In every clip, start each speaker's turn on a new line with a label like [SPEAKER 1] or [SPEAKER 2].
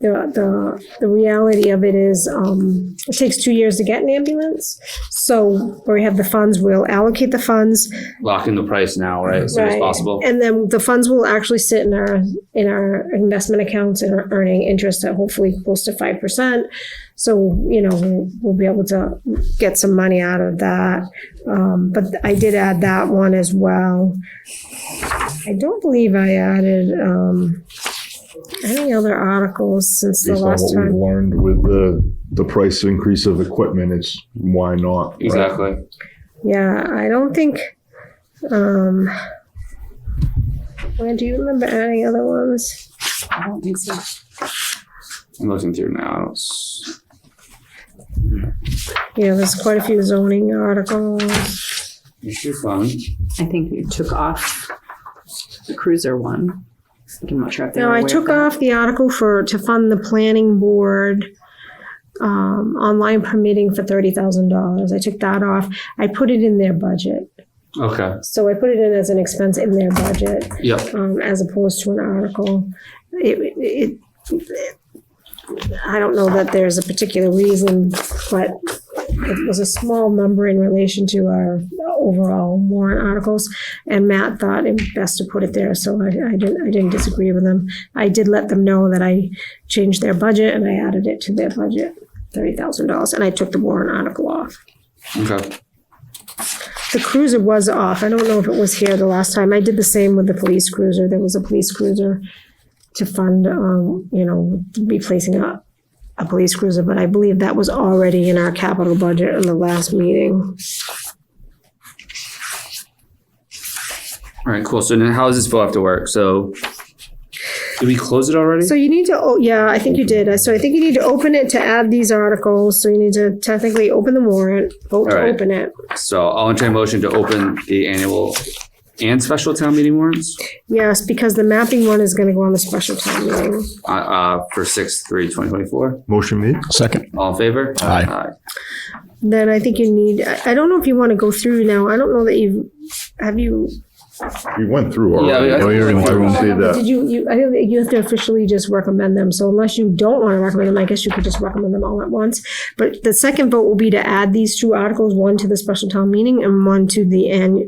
[SPEAKER 1] the, the, the reality of it is, um, it takes two years to get an ambulance. So where we have the funds, we'll allocate the funds.
[SPEAKER 2] Lock in the price now, right? As soon as
[SPEAKER 1] Right.
[SPEAKER 2] possible.
[SPEAKER 1] And then the funds will actually sit in our, in our investment accounts and are earning interest at hopefully close to five percent. So, you know, we'll, we'll be able to get some money out of that. Um, but I did add that one as well. I don't believe I added, um, any other articles since the
[SPEAKER 3] Based on
[SPEAKER 1] last
[SPEAKER 3] what we've
[SPEAKER 1] time.
[SPEAKER 3] learned with the, the price increase of equipment, it's why not? right?
[SPEAKER 2] Exactly.
[SPEAKER 1] Yeah, I don't think, um, Glenn, do you remember any other ones?
[SPEAKER 4] I don't think so.
[SPEAKER 2] I'm looking through now. I don't s-
[SPEAKER 1] Yeah, there's quite a few zoning articles.
[SPEAKER 2] You should fund.
[SPEAKER 4] I think you took off the cruiser one. I'm not sure if they
[SPEAKER 1] No,
[SPEAKER 4] were
[SPEAKER 1] I
[SPEAKER 4] aware
[SPEAKER 1] took
[SPEAKER 4] of that.
[SPEAKER 1] off the article for, to fund the planning board, um, online permitting for thirty thousand dollars. I took that off. I put it in their budget.
[SPEAKER 2] Okay.
[SPEAKER 1] So I put it in as an expense in their budget,
[SPEAKER 2] Yep.
[SPEAKER 1] um, as opposed to an article. It, it, I don't know that there's a particular reason, but it was a small number in relation to our overall warrant articles. And Matt thought it best to put it there, so I, I didn't, I didn't disagree with him. I did let them know that I changed their budget and I added it to their budget, thirty thousand dollars, and I took the warrant article off.
[SPEAKER 2] Okay.
[SPEAKER 1] The cruiser was off. I don't know if it was here the last time. I did the same with the police cruiser. There was a police cruiser to fund, um, you know, replacing a, a police cruiser, but I believe that was already in our capital budget in the last meeting.
[SPEAKER 2] All right. Cool. So then, how does this bill have to work? So, did we close it already?
[SPEAKER 1] So you need to, oh, yeah, I think you did. So I think you need to open it to add these articles. So you need to technically open the warrant, vote to
[SPEAKER 2] All right.
[SPEAKER 1] open it.
[SPEAKER 2] So I'll entertain a motion to open the annual and special town meeting warrants
[SPEAKER 1] Yes, because the mapping one is gonna go on the special town meeting.
[SPEAKER 2] uh, uh, for 6 3 2024.
[SPEAKER 3] Motion made?
[SPEAKER 5] Second.
[SPEAKER 2] All in favor?
[SPEAKER 5] Aye.
[SPEAKER 1] Then I think you need, I, I don't know if you want to go through now. I don't know that you, have you?
[SPEAKER 3] We went through
[SPEAKER 2] Yeah,
[SPEAKER 3] already.
[SPEAKER 2] I- I- We already went through
[SPEAKER 3] I would say
[SPEAKER 1] Did
[SPEAKER 3] that.
[SPEAKER 1] you, you, I think you have to officially just recommend them. So unless you don't want to recommend them, I guess you could just recommend them all at once. But the second vote will be to add these two articles, one to the special town meeting and one to the end,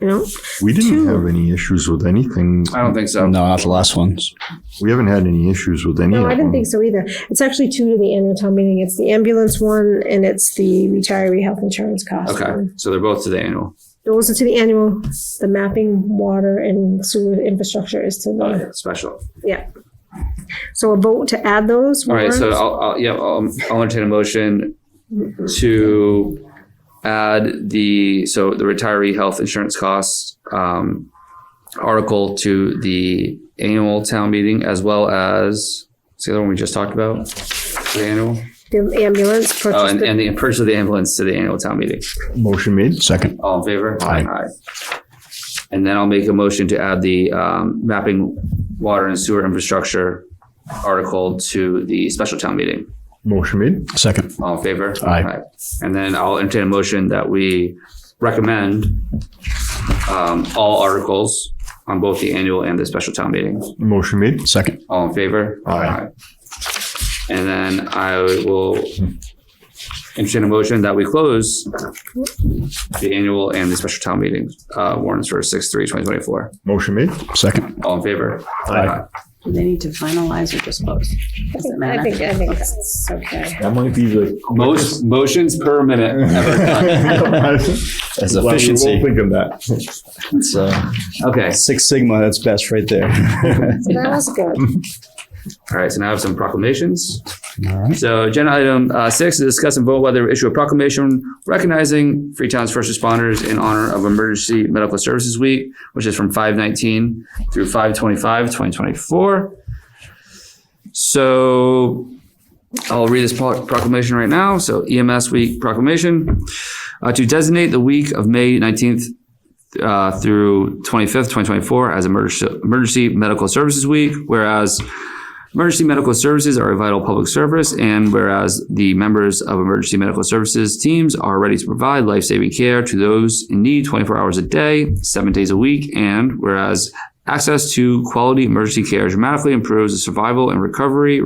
[SPEAKER 1] you know?
[SPEAKER 3] We
[SPEAKER 1] Two.
[SPEAKER 3] didn't have any issues with anything.
[SPEAKER 2] I don't think so.
[SPEAKER 5] No, not the last ones.
[SPEAKER 3] We haven't had any issues with any
[SPEAKER 1] No,
[SPEAKER 3] of them.
[SPEAKER 1] I didn't think so either. It's actually two to the annual town meeting. It's the ambulance one and it's the retiree health insurance cost.
[SPEAKER 2] Okay.
[SPEAKER 1] one.
[SPEAKER 2] So they're both to the annual.
[SPEAKER 1] Those are to the annual, the mapping, water and sewer infrastructure is to the,
[SPEAKER 2] Special.
[SPEAKER 1] yeah. So a vote to add those.
[SPEAKER 2] All right, so
[SPEAKER 1] warrants.
[SPEAKER 2] I'll, I'll, yeah, I'll, I'll entertain a motion to add the, so the retiree health insurance costs, um, article to the annual town meeting as well as, what's the other one we just talked about? The annual,
[SPEAKER 1] The ambulance
[SPEAKER 2] oh,
[SPEAKER 1] purchase.
[SPEAKER 2] and,
[SPEAKER 1] the-
[SPEAKER 2] and the purchase of the ambulance to the annual town meeting.
[SPEAKER 3] Motion made?
[SPEAKER 5] Second.
[SPEAKER 2] All in favor?
[SPEAKER 3] Aye.
[SPEAKER 2] And then I'll make a motion to add the, um, mapping water and sewer infrastructure article to the special town meeting.
[SPEAKER 3] Motion made?
[SPEAKER 5] Second.
[SPEAKER 2] All in favor?
[SPEAKER 5] Aye.
[SPEAKER 2] And then I'll entertain a motion that we recommend um, all articles on both the annual and the special town meeting.
[SPEAKER 3] Motion made?
[SPEAKER 5] Second.
[SPEAKER 2] All in favor?
[SPEAKER 3] Aye.
[SPEAKER 2] And then I will entertain a motion that we close the annual and the special town meeting uh, warrants for six, three, twenty twenty-four.
[SPEAKER 3] Motion made?
[SPEAKER 5] Second.
[SPEAKER 2] All in favor?
[SPEAKER 3] Aye.
[SPEAKER 4] Do they need to finalize or just close? Does it matter?
[SPEAKER 1] I think, I think that's okay.
[SPEAKER 3] That might be the. quickest-
[SPEAKER 2] Most, motions per minute.
[SPEAKER 5] That's
[SPEAKER 3] Glad we all
[SPEAKER 5] efficiency.
[SPEAKER 3] Think of that.
[SPEAKER 5] It's, uh,
[SPEAKER 2] Okay,
[SPEAKER 5] Six Sigma, that's best right there.
[SPEAKER 1] So that was good.
[SPEAKER 2] all right, so now I have some proclamations.
[SPEAKER 5] All right.
[SPEAKER 2] So agenda item uh, six, to discuss and vote whether issue a proclamation recognizing Freetown's first responders in honor of Emergency Medical Services Week, which is from five nineteen through 2024. So I'll read this pro- proclamation right now. So EMS Week proclamation uh, to designate the week of May nineteenth uh, through twenty-fifth, twenty twenty-four as emergency, emergency medical services week, whereas Emergency medical services are a vital public service, and whereas the members of emergency medical services teams are ready to provide life saving care to those in need 24 hours a day, seven days a week, and whereas access to quality emergency care dramatically improves the survival and recovery